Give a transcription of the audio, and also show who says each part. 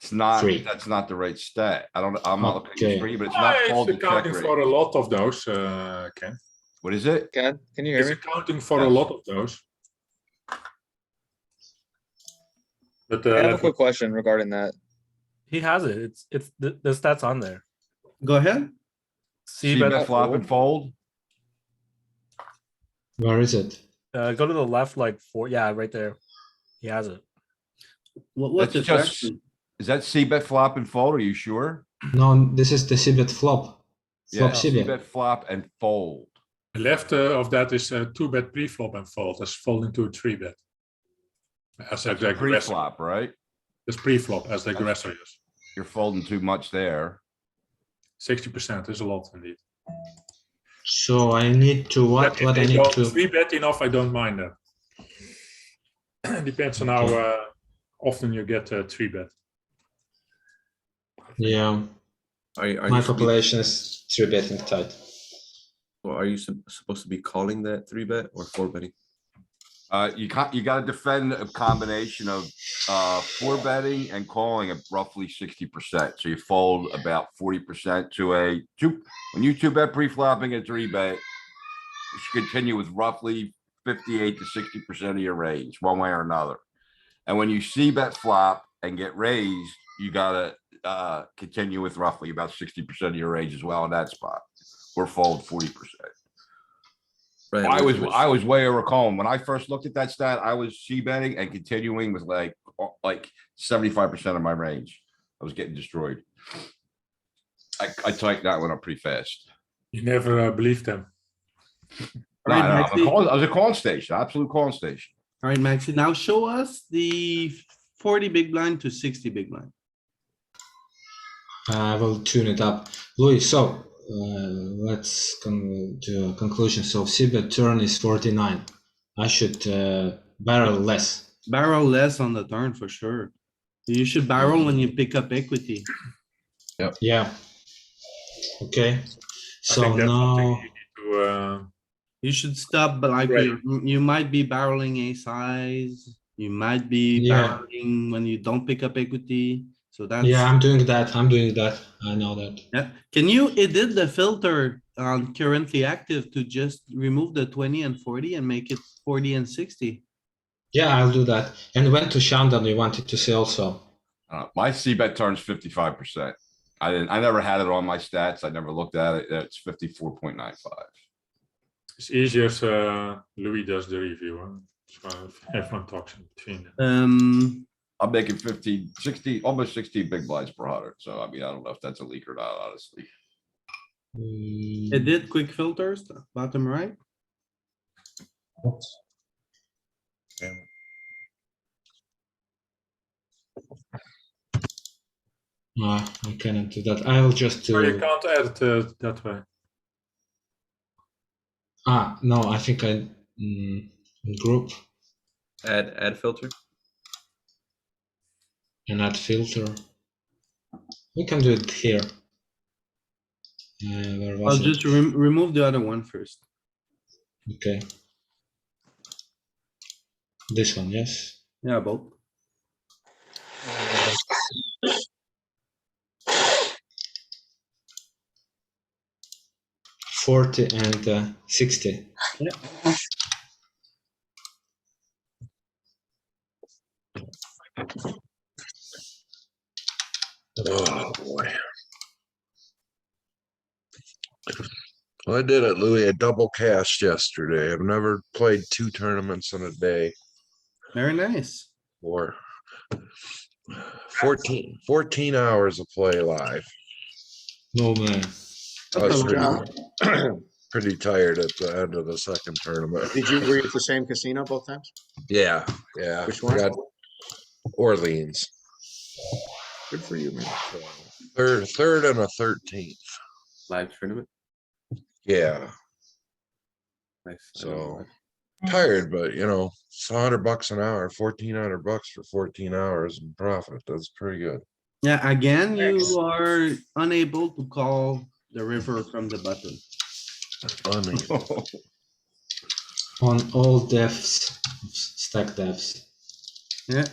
Speaker 1: It's not,
Speaker 2: Three.
Speaker 1: that's not the right stat. I don't, I'm not looking at
Speaker 2: Okay.
Speaker 1: you three, but it's
Speaker 3: Ah,
Speaker 1: not called the check
Speaker 3: accounting for
Speaker 1: raise.
Speaker 3: a lot of those, uh, Ken.
Speaker 1: What is it?
Speaker 4: Can, can you hear
Speaker 3: It's
Speaker 4: me?
Speaker 3: accounting for a
Speaker 1: Yes.
Speaker 3: lot of those. But,
Speaker 4: I have a
Speaker 3: uh,
Speaker 4: quick question regarding that.
Speaker 5: He has it. It's it's the, the stats on there.
Speaker 6: Go ahead.
Speaker 5: See,
Speaker 1: See
Speaker 5: but
Speaker 1: bet flop and fold?
Speaker 2: Where is it?
Speaker 5: uh, go to the left like four. Yeah, right there. He has it.
Speaker 6: What, what's the
Speaker 1: That's just-
Speaker 6: question?
Speaker 1: Is that C bet flop and fold? Are you sure?
Speaker 2: No, this is the cbet flop.
Speaker 1: Yeah,
Speaker 2: Flop
Speaker 1: C
Speaker 2: cbet.
Speaker 1: bet flop and fold.
Speaker 3: left uh, of that is uh, two bet pre-flop and fold, that's folding to a three bet. As the aggressor,
Speaker 1: Pre-flop, right?
Speaker 3: it's pre-flop as the aggressor is.
Speaker 1: You're folding too much there.
Speaker 3: Sixty percent is a lot indeed.
Speaker 2: So I need to what?
Speaker 3: But
Speaker 2: What I
Speaker 3: if
Speaker 2: need
Speaker 3: you're
Speaker 2: to?
Speaker 3: Three bet enough, I don't mind that. Depends on how uh, often you get uh, a three bet.
Speaker 2: Yeah,
Speaker 7: Are you, are
Speaker 2: my
Speaker 7: you, supposed-
Speaker 2: population is three betting tight.
Speaker 7: or are you sup- supposed to be calling that three bet or four betting?
Speaker 1: Uh, you can't, you gotta defend a combination of, uh, four betting and calling at roughly sixty percent. So you fold about forty percent to a two, when you two bet pre-flopping a three bet. You should continue with roughly fifty-eight to sixty percent of your range, one way or another. And when you see bet flop and get raised, you gotta, uh, continue with roughly about sixty percent of your range as well in that spot. Or fold forty percent.
Speaker 7: Right.
Speaker 1: I was,
Speaker 7: which-
Speaker 1: I was way over calling. When I first looked at that stat, I was she betting and continuing with like, uh, like seventy-five percent of my range. I was getting destroyed. I, I typed that one up pretty fast.
Speaker 3: You never uh, believe them.
Speaker 1: No, no,
Speaker 6: Alright,
Speaker 1: I'm a
Speaker 6: Maxi,
Speaker 1: call- I was a call station, absolute call station.
Speaker 6: alright, Maxi, now show us the forty big blind to sixty big blind.
Speaker 2: I will tune it up. Louis, so uh, let's come to a conclusion. So cbet turn is 49. I should uh, barrel less.
Speaker 6: Barrel less on the turn for sure. You should barrel when you pick up equity.
Speaker 2: Yeah. Okay.
Speaker 3: I
Speaker 2: So
Speaker 3: think that's something
Speaker 2: now,
Speaker 3: you need to, uh,
Speaker 6: You should stop, but like,
Speaker 3: Right.
Speaker 6: you you might be barreling a size, you might be
Speaker 2: Yeah.
Speaker 6: barreling when you don't pick up equity, so that's.
Speaker 2: yeah, I'm doing that. I'm doing that. I know that.
Speaker 6: Yeah, can you edit the filter on currently active to just remove the twenty and forty and make it forty and sixty?
Speaker 2: Yeah, I'll do that. And when to Shandon, you wanted to say also.
Speaker 1: Uh, my C bet turns fifty-five percent. I didn't, I never had it on my stats. I never looked at it. It's fifty-four point nine five.
Speaker 3: It's easier if uh, Louis does the review. Huh? So if everyone talks in between. them.
Speaker 6: Um,
Speaker 1: I'm making 15, 16, almost sixteen big blinds per hundred. So I mean, I don't know if that's a leak or not, honestly.
Speaker 2: Mm,
Speaker 6: edit quick filters, bottom right.
Speaker 2: uh, I cannot do that. I will just
Speaker 3: Or you
Speaker 2: do.
Speaker 3: can't edit uh, that way.
Speaker 2: Ah, no, I think I mm, group
Speaker 7: Add add filter.
Speaker 2: and add filter. We can do it here. Uh, where was
Speaker 6: I'll
Speaker 2: it?
Speaker 6: just rem- remove the other one first.
Speaker 2: Okay. This one, yes.
Speaker 6: Yeah, both.
Speaker 2: Forty and uh, sixty.
Speaker 8: Oh boy. I did it, Louis, a double cast yesterday. I've never played two tournaments in a day
Speaker 6: Very nice.
Speaker 8: or 14, 14 hours of play live.
Speaker 2: No uh, man.
Speaker 8: I
Speaker 6: That's
Speaker 8: was
Speaker 6: a lot.
Speaker 8: pretty, pretty tired at the end of the second tournament.
Speaker 4: Did you, were you at the same casino both times?
Speaker 8: Yeah, yeah.
Speaker 4: Which one?
Speaker 8: got Orleans,
Speaker 4: Good for you, man.
Speaker 8: third, third and a 13th.
Speaker 7: Live tournament.
Speaker 8: Yeah.
Speaker 7: Nice. I don't know
Speaker 8: So
Speaker 7: why.
Speaker 8: tired, but you know, it's a hundred bucks an hour, fourteen hundred bucks for fourteen hours in profit. That's pretty good.
Speaker 6: Yeah, again, you are unable to call the river from the button.
Speaker 8: Funny.
Speaker 2: On all depths, stack depths.
Speaker 6: Yeah,